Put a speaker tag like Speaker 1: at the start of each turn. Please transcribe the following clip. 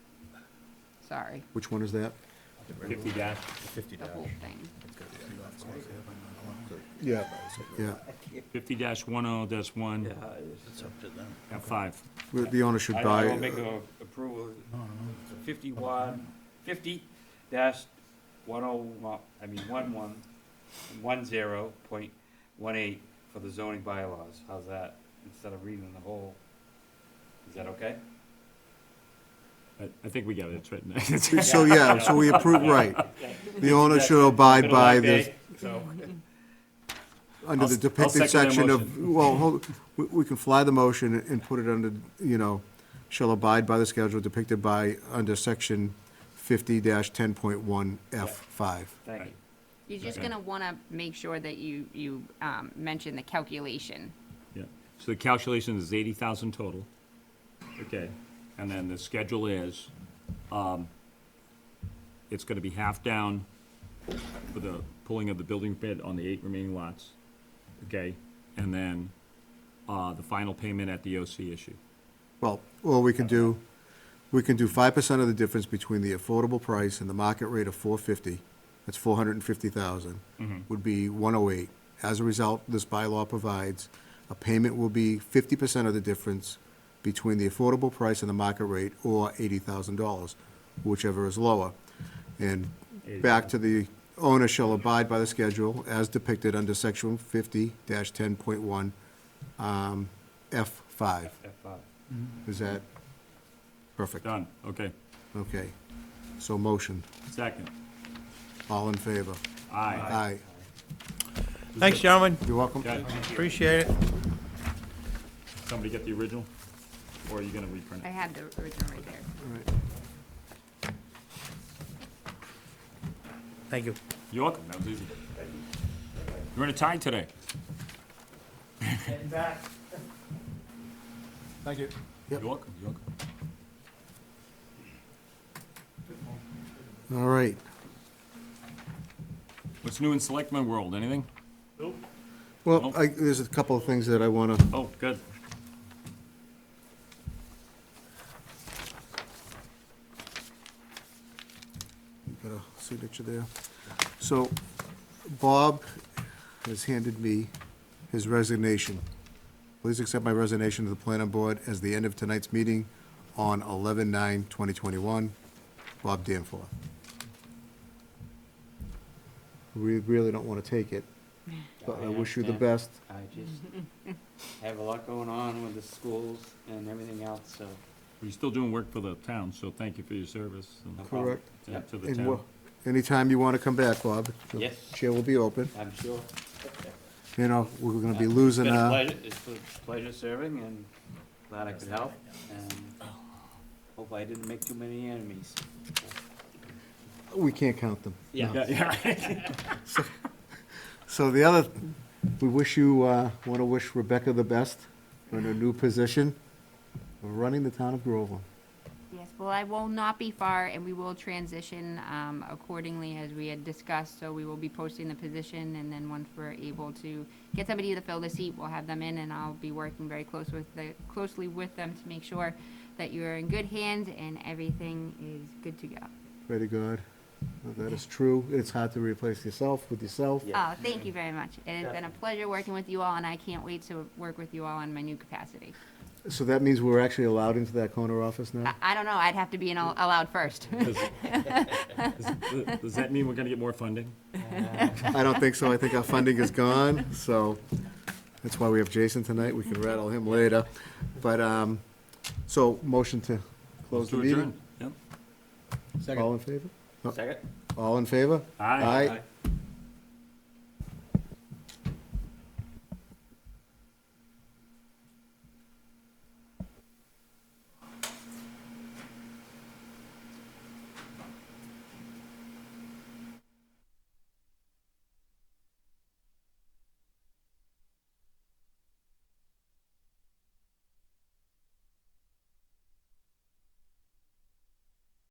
Speaker 1: sorry,
Speaker 2: Which one is that?
Speaker 3: fifty dash.
Speaker 4: Fifty
Speaker 1: the
Speaker 4: dash.
Speaker 1: whole thing.
Speaker 2: Yeah. Yeah,
Speaker 3: Fifty dash one oh dash one
Speaker 5: It's up to them.
Speaker 3: F five.
Speaker 2: Well, the owner should
Speaker 6: I
Speaker 2: buy.
Speaker 6: I will make a approval, fifty-one, fifty dash one oh one, I mean, one one, one zero point one eight for the zoning bylaws, how's that, instead of reading the whole, is that okay?
Speaker 3: I, I think we got it, it's written.
Speaker 2: uh, So, yeah, so we approve, right. The owner should abide
Speaker 3: Middle
Speaker 2: by
Speaker 3: of
Speaker 2: this,
Speaker 3: day, So,
Speaker 2: under the
Speaker 3: I'll- I'll second
Speaker 2: depicted
Speaker 3: that
Speaker 2: section of, well, hold- we, we can fly the motion and put it under, you know, shall abide by the schedule depicted by, under section fifty ten point one F five.
Speaker 6: Thank you.
Speaker 1: You're just
Speaker 3: Okay.
Speaker 1: gonna wanna make sure that you, you, um, mention the calculation.
Speaker 3: yeah, so the calculation is eighty thousand total. Okay, and then the schedule is, um, it's gonna be half down for the pulling of the building bid on the eight remaining lots, okay? And then, uh, the final payment at the OC issue.
Speaker 2: Well, or we can do, we can do five percent of the difference between the affordable price and the market rate of four fifty, that's four hundred and fifty thousand, would be one oh eight. As a result, this bylaw provides, a payment will be fifty percent of the difference between the affordable price and the market rate, or eighty thousand dollars, whichever is lower. And back to the owner shall abide by the schedule as depicted under section fifty ten point one, um, F five.
Speaker 6: F five.
Speaker 2: Is that perfect?
Speaker 3: Done, okay,
Speaker 2: Okay. So motion.
Speaker 3: second,
Speaker 2: All in favor?
Speaker 3: aye.
Speaker 2: Aye.
Speaker 5: Thanks, gentlemen.
Speaker 2: You're welcome.
Speaker 3: Okay,
Speaker 5: Appreciate it.
Speaker 3: somebody get the original, or are you gonna reprint
Speaker 1: I
Speaker 3: it?
Speaker 1: had the original right there.
Speaker 2: All right.
Speaker 5: Thank you.
Speaker 3: You're welcome, that was easy. You're in a tie today.
Speaker 2: Thank you.
Speaker 3: You're
Speaker 2: Yep.
Speaker 3: welcome, you're welcome.
Speaker 2: All right.
Speaker 3: What's new in Selectman World, anything?
Speaker 2: Well, I, there's a couple of things that I want to,
Speaker 3: Oh, good.
Speaker 2: got a signature there. So Bob has handed me his resignation. Please accept my resignation to the planning board as the end of tonight's meeting on 11/9/2021. Bob Danforth. We really don't want to take it, but I wish you the best.
Speaker 6: understand. I just have a lot going on with the schools and everything else, so.
Speaker 3: You're still doing work for the town, so thank you for your service
Speaker 6: no
Speaker 3: and
Speaker 6: problem.
Speaker 2: Correct.
Speaker 3: and to the
Speaker 2: And
Speaker 3: town.
Speaker 2: we'll- anytime you want to come back, Bob. the
Speaker 6: Yes.
Speaker 2: Chair will be open.
Speaker 6: I'm sure.
Speaker 2: You know, we're going to be
Speaker 6: It's
Speaker 2: losing,
Speaker 6: been a
Speaker 2: uh,
Speaker 6: pleasure- It's been a pleasure serving and glad I could help and hope I didn't make too many enemies.
Speaker 2: we can't count them.
Speaker 3: Yeah, yeah.
Speaker 2: So the other, we wish you, want to wish Rebecca the best in her new position of running the town of Groveland.
Speaker 1: Yes, well, I will not be far, and we will transition um, accordingly as we had discussed. So we will be posting the position, and then once we're able to get somebody to fill the seat, we'll have them in, and I'll be working very close with the, closely with them to make sure that you're in good hands and everything is good to go.
Speaker 2: Pray to God that that is true. It's hard to replace yourself with yourself.
Speaker 1: Oh, thank you very much. It has been a pleasure working with you all, and I can't wait to work with you all in my new capacity.
Speaker 2: So that means we're actually allowed into that corner office
Speaker 1: I,
Speaker 2: now?
Speaker 1: I don't know, I'd have to be in al- allowed first.
Speaker 3: Does does- does that mean we're gonna get more funding?
Speaker 2: I don't think so. I think our funding is gone, so that's why we have Jason tonight. We can rattle him later. But, um, so motion to close the
Speaker 3: To
Speaker 2: meeting?
Speaker 3: adjourn, yep.
Speaker 2: All in favor?
Speaker 6: Second?
Speaker 2: All in favor?
Speaker 3: Aye.
Speaker 2: Aye.